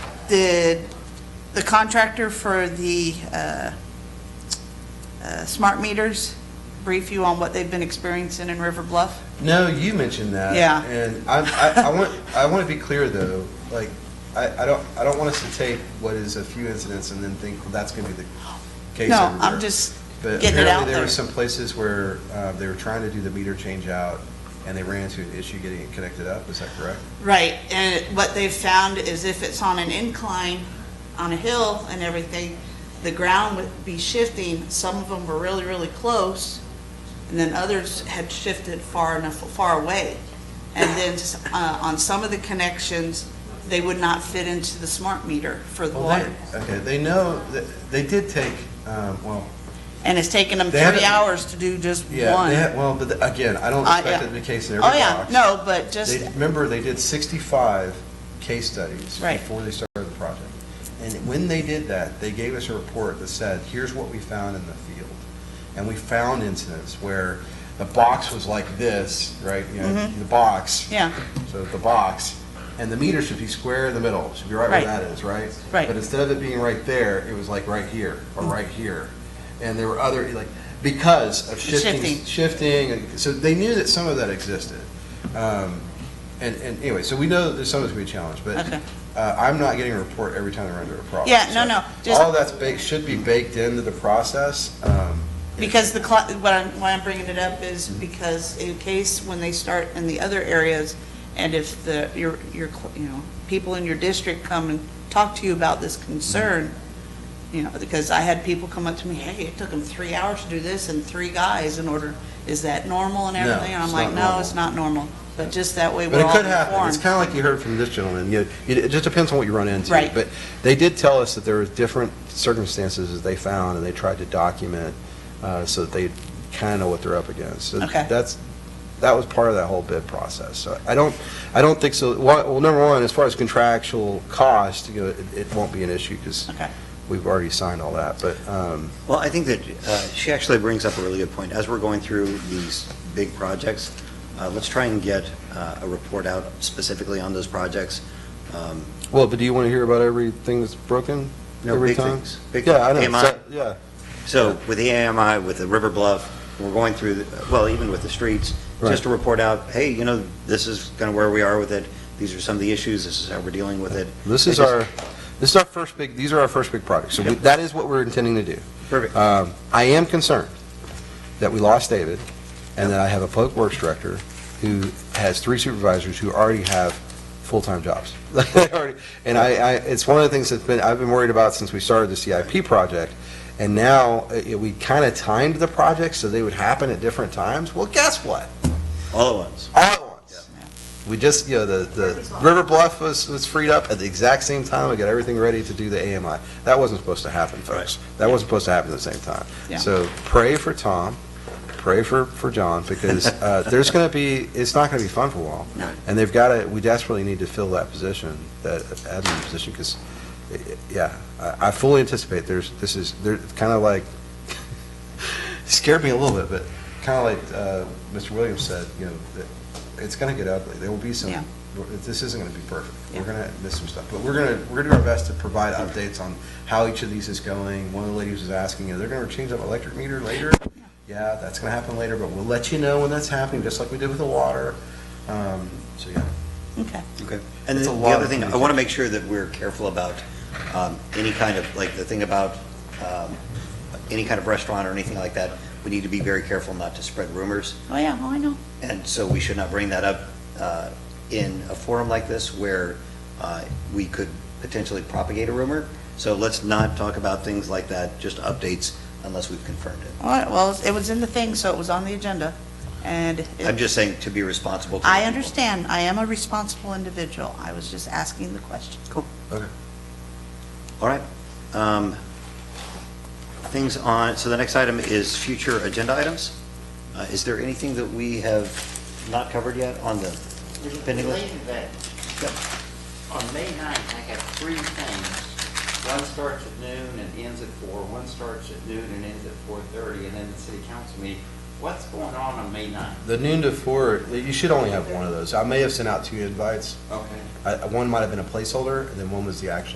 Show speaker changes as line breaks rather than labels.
the, the contractor for the uh, uh, smart meters brief you on what they've been experiencing in River Bluff?
No, you mentioned that.
Yeah.
And I, I, I want, I want to be clear though, like, I, I don't, I don't want us to take what is a few incidents and then think, well, that's going to be the case
No,
everywhere.
I'm just getting it
But
out
apparently there
there.
were some places where, uh, they were trying to do the meter change out and they ran into an issue getting it connected up. Is that correct?
Right, and what they've found is if it's on an incline, on a hill and everything, the ground would be shifting. Some of them were really, really close, and then others had shifted far enough, far away. And then uh, on some of the connections, they would not fit into the smart meter for the
Well,
water.
they, okay, they know, that- they did take, um, well,
And it's taken them
They
three
haven't-
hours to do just
yeah, they
one.
had, well, but the- again, I don't
I-
expect
yeah.
it to be the case in every
Oh, yeah,
box.
no, but just,
They, remember, they did 65 case studies
Right.
before they started the project. And when they did that, they gave us a report that said, here's what we found in the field. And we found incidents where the box was like this, right? You know,
Mm-hmm.
the box.
Yeah.
So the box, and the meter should be square in the middle, should be right where
Right.
that is, right?
Right.
But instead of it being right there, it was like right here, or right here. And there were other, like, because of shifting,
Shifting.
shifting, and so they knew that some of that existed. Um, And, and anyway, so we know that there's some that's gonna be a challenge, but
Okay.
uh, I'm not getting a report every time they're under a problem.
Yeah, no,
So
no, just-
All that's baked, should be baked into the process. um,
Because the, cla- what I'm, why I'm bringing it up is because in case when they start in the other areas, and if the, your, your, cl- you know, people in your district come and talk to you about this concern, you know, because I had people come up to me, hey, it took them three hours to do this and three guys in order, is that normal and
No,
everything? And I'm
it's
like,
not
no,
normal."
it's not normal, but just that way
But
we're
it
all
could happen. It's
informed.
kind of like you heard from this gentleman. You know, It it just depends on what you run into.
Right.
But they did tell us that there were different circumstances that they found, and they tried to document uh, so that they kind of know what they're up against. So
Okay.
That's, that was part of that whole bid process. So I don't, I don't think so. Well, well, number one, as far as contractual cost, you know, it it won't be an issue because
Okay.
we've already signed all that. But, um,
Well, I think that uh, she actually brings up a really good point. As we're going through these big projects, uh, let's try and get uh, a report out specifically on those projects. Um,
well, but do you want to hear about everything that's broken?
No,
every
big
time?
things. Big
Yeah, I know.
things.
So- Yeah.
So with the AMI, with the River Bluff, we're going through, the- well, even with the streets,
Right.
just to report out, hey, you know, this is kind of where we are with it, these are some of the issues, this is how we're dealing with it.
This is
Because-
our, this is our first big, these are our first big projects. So we- that is what we're intending to do.
Perfect.
Um, I am concerned that we lost David and that I have a public works director who has three supervisors who already have full-time jobs. Like, they already- And I, I, it's one of the things that's been, I've been worried about since we started the CIP project. And now uh, we kind of timed the projects so they would happen at different times. Well, guess what?
All at once.
all at once. We just, you know, the, the River Bluff was, was freed up at the exact same time. We got everything ready to do the AMI. That wasn't supposed to happen, folks. That wasn't supposed to happen at the same
Yeah.
time. So pray for Tom, pray for, for John, because, uh, there's gonna be, it's not gonna be fun for a while.
No.
And they've gotta, we desperately need to fill that position, that admin position, because, yeah, I, I fully anticipate there's, this is, they're kind of like, scared me a little bit, but kind of like, uh, Mr. Williams said, you know, that it's going to get ugly. There will be
Yeah.
some, this isn't going to be perfect.
Yeah.
We're going to miss some stuff, but we're going to, we're going to do our best to provide updates on how each of these is going. One of the ladies was asking, you know, they're going to change that electric meter later? Yeah, that's going to happen later, but we'll let you know when that's happening, just like we did with the water. Um, So, yeah.
Okay,
Okay. And
It's
the
a
the
lot
other
of
thing, I want to make sure that we're careful about um, any kind of, like, the thing about um, any kind of restaurant or anything like that, we need to be very careful not to spread rumors,
oh, yeah, oh, I know.
and so we should not bring that up uh, in a forum like this where uh, we could potentially propagate a rumor. So let's not talk about things like that, just updates unless we've confirmed it.
All right, well, it was in the thing, so it was on the agenda, and. it-
I'm just saying to be responsible to the
I
people.
understand. I am a responsible individual. I was just asking the question.
Cool.
Okay.
All right. Um, Things on, so the next item is future agenda items. Uh, Is there anything that we have not covered yet on the
There's a
pending list?
related to that. On May 9th, I have three things. One starts at noon and ends at four, one starts at noon and ends at 4:30, and then the city council meeting. What's going on on May 9th?
The noon to four, you should only have one of those. I may have sent out two invites.
Okay.
I- One might have been a placeholder, and then one was the actual